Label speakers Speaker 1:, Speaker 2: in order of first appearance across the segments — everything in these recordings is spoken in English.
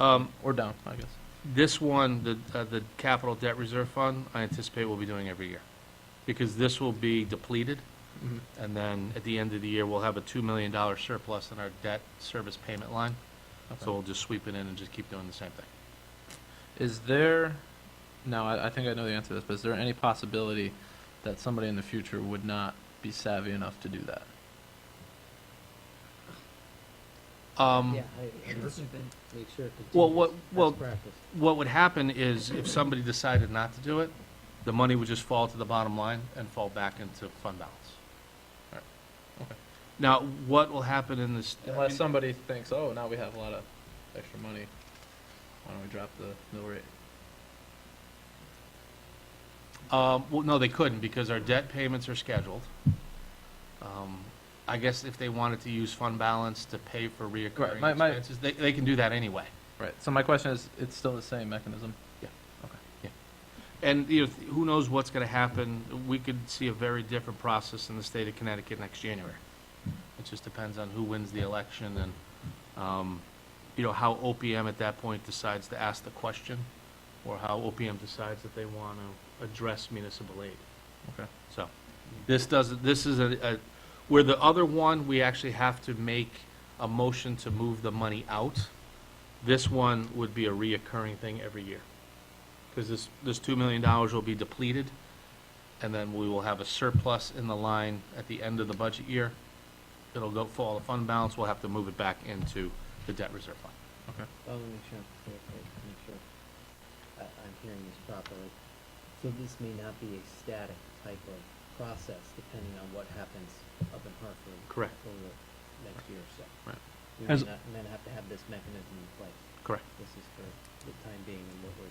Speaker 1: Um,
Speaker 2: or down, I guess.
Speaker 1: This one, the, uh, the capital debt reserve fund, I anticipate we'll be doing every year. Because this will be depleted,
Speaker 2: Mhm.
Speaker 1: and then at the end of the year, we'll have a two million dollar surplus in our debt service payment line.
Speaker 2: Okay.
Speaker 1: So we'll just sweep it in and just keep doing the same thing.
Speaker 2: Is there, now I, I think I know the answer to this, but is there any possibility that somebody in the future would not be savvy enough to do that?
Speaker 1: Um,
Speaker 3: Yeah, I, I just make sure it continues.
Speaker 1: Mm. Well, what-
Speaker 3: That's
Speaker 1: well-
Speaker 3: practice.
Speaker 1: what would happen is if somebody decided not to do it, the money would just fall to the bottom line and fall back into fund balance. All right.
Speaker 2: Okay.
Speaker 1: Now, what will happen in this? I
Speaker 2: Unless
Speaker 1: mean,
Speaker 2: somebody thinks, oh, now we have a lot of extra money, why don't we drop the mill rate?
Speaker 1: Um, well, no, they couldn't because our debt payments are scheduled. Um, I guess if they wanted to use fund balance to pay for reoccurring
Speaker 2: my- my-
Speaker 1: expenses, they, they can do that anyway.
Speaker 2: Right, so my question is, it's still the same mechanism?
Speaker 1: And, you know, who knows what's gonna happen? We could see a very different process in the state of Connecticut next January. It just depends on who wins the election and, um, you know, how OPM at that point decides to ask the question or how OPM decides that they wanna address municipal aid.
Speaker 2: Okay.
Speaker 1: So, this doesn't, this is a, a- where the other one, we actually have to make a motion to move the money out. This one would be a reoccurring thing every year. Because this, this $2 million will be depleted, and then we will have a surplus in the line at the end of the budget year. It'll go, fall to fund balance, we'll have to move it back into the debt reserve fund.
Speaker 3: I wanna make sure, I'm clear, I make sure I, I'm hearing this properly. So this may not be a static type of process depending on what happens up in Hartford.
Speaker 1: Correct.
Speaker 3: Over the next year or so.
Speaker 1: Right.
Speaker 3: We
Speaker 2: As-
Speaker 3: may not, may not have to have this mechanism in place.
Speaker 1: Correct.
Speaker 3: This is for the time being and what we're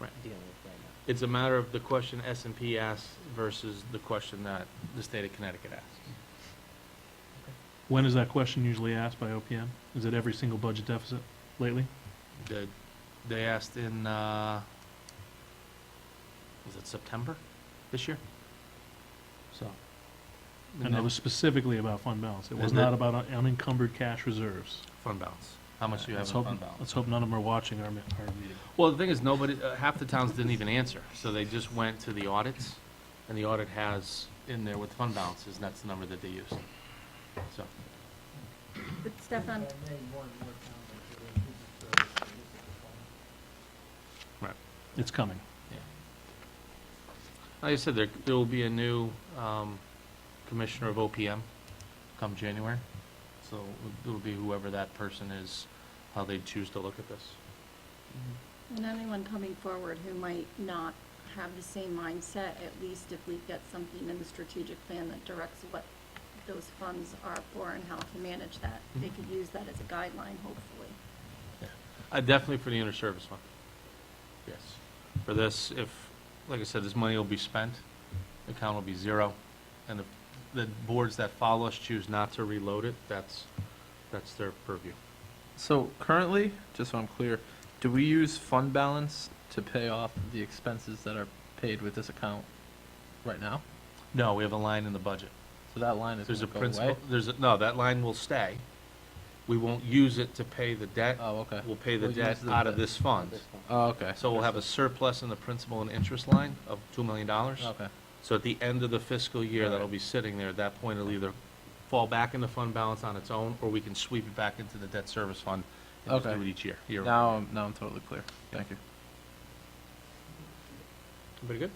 Speaker 1: Right.
Speaker 3: dealing with right now.
Speaker 1: It's a matter of the question S and P asks versus the question that the state of Connecticut asks.
Speaker 4: When is that question usually asked by OPM? Is it every single budget deficit lately?
Speaker 1: They, they asked in, uh, was it September this year? So.
Speaker 4: And it was specifically about fund balance. It was
Speaker 1: And that-
Speaker 4: not about un- unencumbered cash reserves.
Speaker 1: Fund balance. How much do you have
Speaker 4: Let's
Speaker 1: in
Speaker 4: hope-
Speaker 1: fund balance?
Speaker 4: Let's hope none of them are watching our, mi- our meeting.
Speaker 1: Well, the thing is, nobody, uh, half the towns didn't even answer, so they just went to the audits, and the audit has in there with fund balances, and that's the number that they used. So,
Speaker 5: But Stefan,
Speaker 4: It's coming.
Speaker 1: like I said, there, there will be a new, um, commissioner of OPM come January. So it'll be whoever that person is, how they choose to look at this.
Speaker 5: and anyone coming forward who might not have the same mindset, at least if we've got something in the strategic plan that directs what those funds are for and how to manage that, they could use that as a guideline, hopefully.
Speaker 1: Uh, definitely for the inter-service fund. Yes. For this, if, like I said, this money will be spent, the account will be zero, and if the boards that follow us choose not to reload it, that's, that's their purview.
Speaker 2: So currently, just so I'm clear, do we use fund balance to pay off the expenses that are paid with this account right now?
Speaker 1: No, we have a line in the budget.
Speaker 2: So that line is
Speaker 1: There's a
Speaker 2: gonna go
Speaker 1: principal,
Speaker 2: away?
Speaker 1: there's, a no, that line will stay. We won't use it to pay the debt.
Speaker 2: Oh, okay.
Speaker 1: We'll pay the
Speaker 2: We'll
Speaker 1: debt
Speaker 2: use the
Speaker 1: out of
Speaker 2: debt.
Speaker 1: this fund.
Speaker 3: This one.
Speaker 2: Oh, okay.
Speaker 1: So we'll have a surplus in the principal and interest line of $2 million.
Speaker 2: Okay.
Speaker 1: So at the end of the fiscal year, that'll be sitting there, at that point, it'll either fall back into fund balance on its own, or we can sweep it back into the debt service fund and just
Speaker 2: Okay.
Speaker 1: do it each year. year-
Speaker 2: Now, I'm- now I'm totally clear.
Speaker 1: Yeah.
Speaker 2: Thank you.
Speaker 1: Everybody good?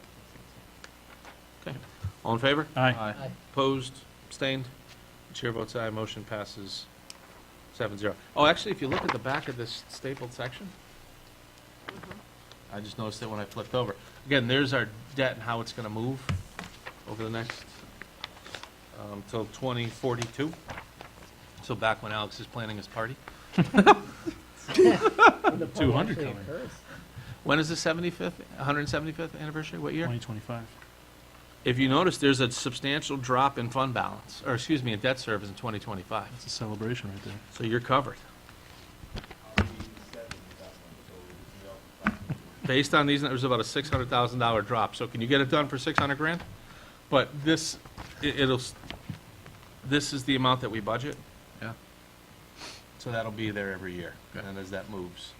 Speaker 1: Okay. All in favor?
Speaker 4: Aye.
Speaker 2: Aye.
Speaker 1: Opposed? Abstained? Chair votes aye, motion passes seven zero. Oh, actually, if you look at the back of this stapled section, I just noticed it when I flipped over. Again, there's our debt and how it's gonna move over the next, um, till twenty forty-two. So back when Alex is planning his party.
Speaker 3: When the poll
Speaker 4: 200
Speaker 3: actually
Speaker 4: coming.
Speaker 3: occurs.
Speaker 1: When is the seventy-fifth, hundred and seventy-fifth anniversary? What year?
Speaker 4: 2025.
Speaker 1: If you notice, there's a substantial drop in fund balance, or excuse me, in debt service in twenty twenty-five.
Speaker 4: That's a celebration right there.
Speaker 1: So you're covered. Based on these, it was about a six hundred thousand dollar drop, so can you get it done for six hundred grand? But this, it, it'll, s- this is the amount that we budget,
Speaker 2: Yeah.
Speaker 1: so that'll be there every year,
Speaker 2: Okay.
Speaker 1: and as that moves.